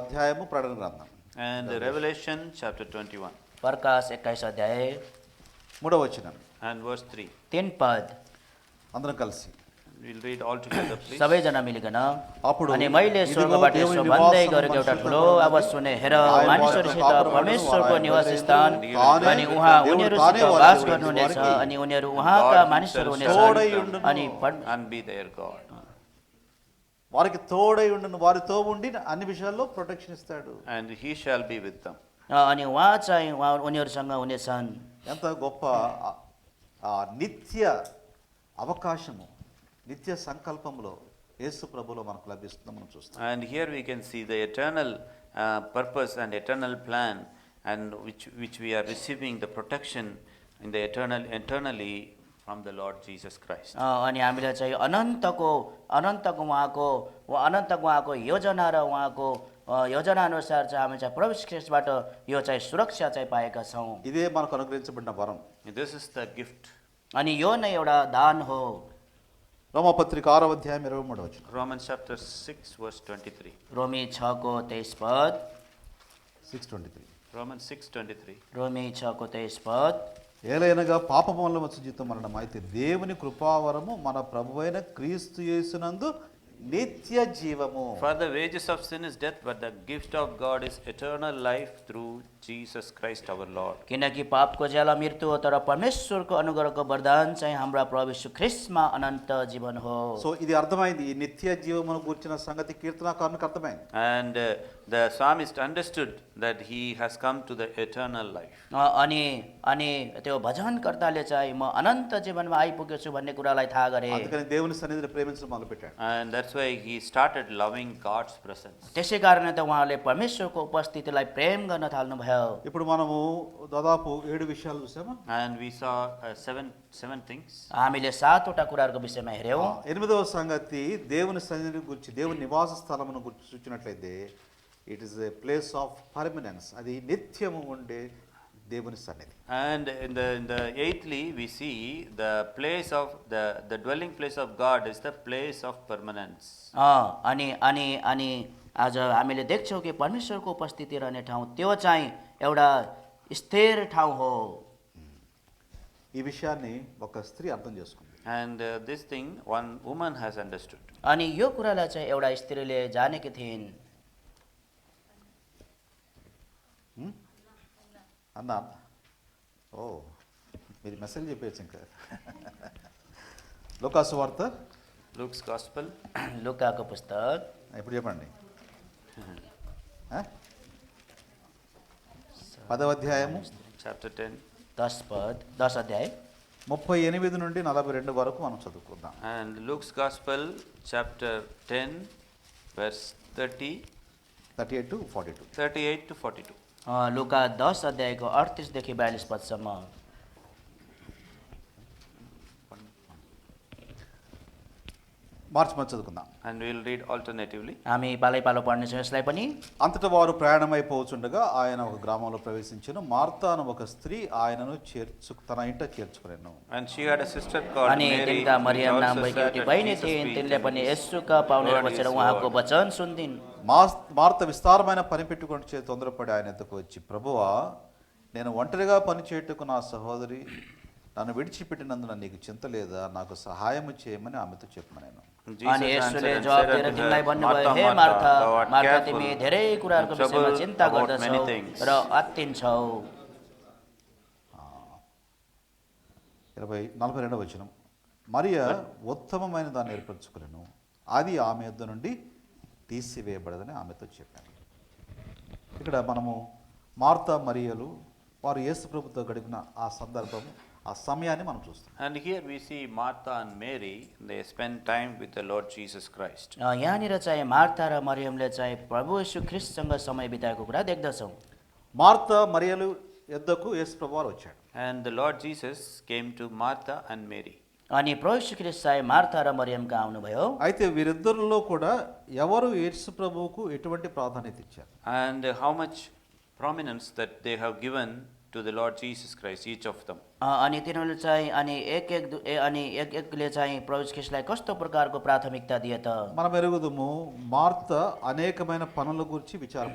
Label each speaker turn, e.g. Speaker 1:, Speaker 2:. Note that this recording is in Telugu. Speaker 1: అధ్యాయము ప్రకటన గ్రంథం
Speaker 2: And Revelation chapter 21
Speaker 3: प्रकाश एक्काइस अध्याय
Speaker 1: మూడవ వచనం
Speaker 2: and verse 3.
Speaker 3: तीन पद
Speaker 1: అందరం కలిసి
Speaker 2: We'll read all together, please.
Speaker 3: सबैजना मिलिकन
Speaker 1: అప్పుడు
Speaker 3: अनि मैले
Speaker 1: इदिगो
Speaker 3: स्वर्गबाट
Speaker 1: देव
Speaker 3: यसो
Speaker 1: निवासमा
Speaker 3: भन्दै गरेको एउटा
Speaker 1: मनुष्यको
Speaker 3: ठुलो
Speaker 1: प्रभु
Speaker 3: आवाज सुने हेर
Speaker 1: आए
Speaker 3: मानिसहरूसित
Speaker 1: वासमा
Speaker 3: परमेश्वरको
Speaker 1: आए
Speaker 3: निवास
Speaker 1: वासमा
Speaker 3: स्थान
Speaker 1: आए
Speaker 3: अनि
Speaker 1: वासमा
Speaker 3: उहाँ
Speaker 1: देवले
Speaker 3: उनीहरूसित
Speaker 1: ताने
Speaker 3: वास
Speaker 1: वासमा
Speaker 3: गर्नुहुनेछ
Speaker 1: वासमा
Speaker 3: अनि उनीहरू उहाँका मानिसहरू हुनेछन्
Speaker 1: तोडैयुण्डनु।
Speaker 3: अनि पन-
Speaker 2: And be their God.
Speaker 1: వారికి తోడై ఉండను వారితో ఉండి అన్ని విషయాల్లో ప్రొటెక్షన్ ఇస్తాడు
Speaker 2: And he shall be with them.
Speaker 3: अनि उहाँ चाहिँ उहाँ उनीहरूसँग हुनेछन्
Speaker 1: ఎంత గొప్ప ఆ- ఆ నిత్య అవకాశము నిత్య సంకల్పంలో యేసు ప్రభులో మనకు లభిస్తుందో మనం చూస్తాం
Speaker 2: And here we can see the eternal uh, purpose and eternal plan, and which, which we are receiving the protection in the eternal, eternally from the Lord Jesus Christ.
Speaker 3: अ, अनि हामीलाई चाहिँ अनन्तको अनन्तको उहाँको वा- अनन्तको उहाँको योजना र उहाँको अ, योजना अनुसार चाहिँ हामी चाहिँ प्रवेश ख्रिस्टबाट यो चाहिँ सुरक्षा चाहिँ पाएका छौँ
Speaker 1: ఇదే మనకు అనుగ్రహించబడిన వరం
Speaker 2: This is the gift.
Speaker 3: अनि यो नै एउटा दान हो
Speaker 1: రోమపత్రిక ఆరో అధ్యాయం ఇరవై మూడవ వచనం
Speaker 2: Romans chapter 6, verse 23.
Speaker 3: रोमी छको तेइस पद
Speaker 1: సిక్స్ ట్వంటీ త్రీ
Speaker 2: Romans 6, 23.
Speaker 3: रोमी छको तेइस पद
Speaker 1: ఏలైనగా పాపం వల్ల వచ్చే జీతం మరణం అయితే దేవుని కృపావరము మన ప్రభువైన క్రీస్తు యేసునందు నిత్య జీవము
Speaker 2: For the wages of sin is death, but the gift of God is eternal life through Jesus Christ our Lord.
Speaker 3: किनकि पापको ज्याला मृत्यु हो तर परमेश्वरको अनुग्रहको वरदान चाहिँ हाम्रा प्रभु यीशु ख्रिस्टमा अनन्त जीवन हो
Speaker 1: సో ఇది అర్థమైంది ఈ నిత్య జీవమును గురించిన సంగతి కీర్తనాకారునికి అర్థమైంది
Speaker 2: And uh, the psalmist understood that he has come to the eternal life.
Speaker 3: अ, अनि अनि त्यो भजनकर्ताले चाहिँ म अनन्त जीवनमा आइपुगेछु भन्ने कुरालाई थाहा गरे
Speaker 1: అందుకని దేవుని సన్నిధిని ప్రేమించడం మొదలుపెట్టాడు
Speaker 2: And that's why he started loving God's presence.
Speaker 3: त्यसै कारण त उहाँले परमेश्वरको उपस्थितिलाई प्रेम गर्न थाल्नुभयो
Speaker 1: ఇప్పుడు మనము దాదాపు ఏడు విషయాలు చూసామా
Speaker 2: And we saw uh, seven, seven things.
Speaker 3: हामीले सातवटा कुराहरूको विषयमा हेऱ्यौँ
Speaker 1: ఎనిమిదవ సంగతి దేవుని సన్నిధిని గురించి దేవుని నివాస స్థలమును గురించి చూచినట్లయితే it is a place of permanence అది నిత్యము ఉండే దేవుని సన్నిధి
Speaker 2: And in the, in the eighthly, we see the place of, the, the dwelling place of God is the place of permanence.
Speaker 3: अँ, अनि अनि अनि आज हामीले देख्छौँ कि परमेश्वरको उपस्थिति रहने ठाउँ त्यो चाहिँ एउटा स्थिर ठाउँ हो
Speaker 1: ఈ విషయాన్ని ఒక స్త్రీ అర్థం చేసుకుంది
Speaker 2: And uh, this thing, one woman has understood.
Speaker 3: अनि यो कुरालाई चाहिँ एउटा स्त्रीले जानेकी थिइन्
Speaker 1: ఉమ్? అన్నా ఓ మీరు మెసేజ్ చెప్పేయచ్చు ఇంకా లోకాసు వార్త
Speaker 2: Luke's Gospel,
Speaker 3: लुकाको पुस्तक
Speaker 1: ఇప్పుడు చెప్పండి ఆ? పదవ అధ్యాయము
Speaker 2: chapter 10,
Speaker 3: दस पद दस अध्याय
Speaker 1: ముప్పై ఎనిమిది నుండి నలభై రెండు వరకు మనం చదువుకుందాం
Speaker 2: and Luke's Gospel, chapter 10, verse 30,
Speaker 1: thirty eight to forty two
Speaker 2: 38 to 42.
Speaker 3: अँ, लुका दस अध्यायको अडतिसदेखि बयालिस पदसम्म
Speaker 1: మార్చి మనం చదువుకుందాం
Speaker 2: And we'll read alternatively.
Speaker 3: हामी पालै पालो पढ्नेछौँ यसलाई पनि
Speaker 1: అంతటా వారు ప్రయాణమైపోవచ్చుండగా ఆయన ఒక గ్రామంలో ప్రవేశించిన మార్తాను ఒక స్త్రీ ఆయనను చేర్చు తన ఇంట చేర్చుకునేను
Speaker 2: And she had a sister called
Speaker 3: अनि
Speaker 2: Mary,
Speaker 3: तिनका
Speaker 2: which
Speaker 3: मरियम नाम
Speaker 2: also
Speaker 3: भएकी
Speaker 2: sat
Speaker 3: एउटी
Speaker 2: at
Speaker 3: बहिनी
Speaker 2: Jesus'
Speaker 3: थिइन्
Speaker 2: feet
Speaker 3: तिनले
Speaker 2: and
Speaker 3: पनि
Speaker 2: listened.
Speaker 3: यसुका पाउने
Speaker 2: Lord is
Speaker 3: बसेर
Speaker 2: Lord.
Speaker 3: उहाँको वचन सुन्दिन्
Speaker 1: మాస్ మార్త విస్తారమైన పని పెట్టుకొని చే తొందరపడి ఆయన ఎద్దకు వచ్చి ప్రభువా నేను ఒంటరిగా పని చేయుటకు నా సహోదరి నన్ను విడిచిపెట్టినందున నీకు చింత లేదా నాకు సహాయము చేయమని ఆమెతో చెప్పను నేను
Speaker 2: And
Speaker 3: अनि
Speaker 2: Jesus answered
Speaker 3: यसोले
Speaker 2: and
Speaker 3: जवाब
Speaker 2: said
Speaker 3: दिएर
Speaker 2: unto her,
Speaker 3: तिमीलाई भन्नुभयो
Speaker 2: "Martha,
Speaker 3: हे
Speaker 2: Martha,
Speaker 3: Martha
Speaker 2: thou art
Speaker 3: Martha
Speaker 2: careful
Speaker 3: तिमी धेरै कुराहरूको
Speaker 2: and
Speaker 3: विषयमा
Speaker 2: troubled
Speaker 3: चिन्ता
Speaker 2: about
Speaker 3: गर्दछौ
Speaker 2: many things."
Speaker 3: र अत्तिन्छौ
Speaker 1: ఇరవై నలభై రెండవ వచనం మరియ ఉత్తమమైన దాన్ని ఏర్పరచుకునేను అది ఆమె యొద్ద నుండి తీసివేయబడదని ఆమెతో చెప్పాను ఇక్కడ మనము మార్త మరియలు వారు యేసు ప్రభుతో గడిపిన ఆ సందర్భం ఆ సమయాన్ని మనం చూస్తాం
Speaker 2: And here we see Martha and Mary, they spend time with the Lord Jesus Christ.
Speaker 3: अ, यहाँनिर चाहिँ मार्था र मरियमले चाहिँ प्रभु यशु ख्रिस्टसँग समय बिताएको कुरा देख्दछौँ
Speaker 1: మార్త మరియలు యొద్దకు యేసు ప్రభు వారు వచ్చాడు
Speaker 2: And the Lord Jesus came to Martha and Mary.
Speaker 3: अनि प्रभु यशु ख्रिस्ट चाहिँ मार्था र मरियमका आउनुभयो
Speaker 1: అయితే వీరిద్దరిలో కూడా ఎవరు యేసు ప్రభువుకు ఎటువంటి ప్రాధాన్యత ఇచ్చారు
Speaker 2: And how much prominence that they have given to the Lord Jesus Christ, each of them.
Speaker 3: अ, अनि तिनीहरूले चाहिँ अनि एक एक दु- ए- अनि एक एकले चाहिँ प्रभु ख्रिस्टलाई कस्तो प्रकारको प्राथमिकता दिए त
Speaker 1: మనం ఎరుగుదుము మార్త అనేకమైన పనుల గురించి విచారం